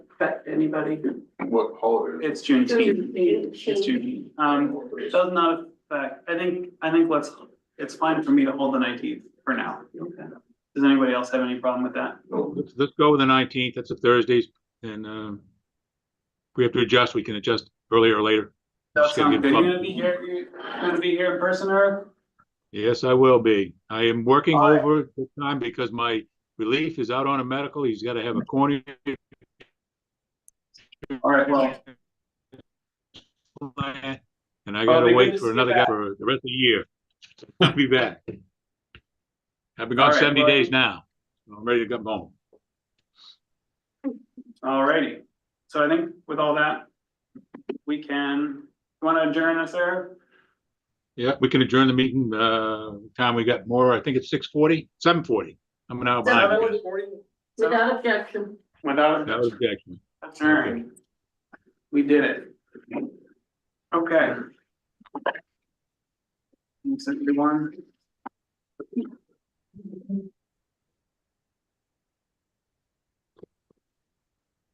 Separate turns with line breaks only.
anybody.
What holiday?
It's Juneteenth.
Juneteenth.
It's Juneteenth. Um, it does not affect, I think, I think let's, it's fine for me to hold the nineteenth for now.
Okay.
Does anybody else have any problem with that?
No,
Let's, let's go with the nineteenth, that's a Thursday, and, um, if we have to adjust, we can adjust earlier or later.
That
Just gotta
sounds
give
good. You're
club-
gonna be here, you're gonna be here in person, Eric?
Yes, I will be. I am working
All right.
over the time because my relief is out on a medical, he's gotta have a cornea.
All right, well,
And I gotta
Probably
wait
good
for
to
another
Oh, see
guy
you
for the rest of the year. I'll be back. I've been gone
All right,
seventy
well-
days now, I'm ready to go home.
all righty. So I think with all that, we can, you wanna adjourn us, Eric?
Yeah, we can adjourn the meeting, uh, time we got more, I think it's six forty, seven forty, I'm an hour behind. you guys.
Without objection.
Without.
That was excellent.
Adjourn. We did it. Okay. Thanks, everyone.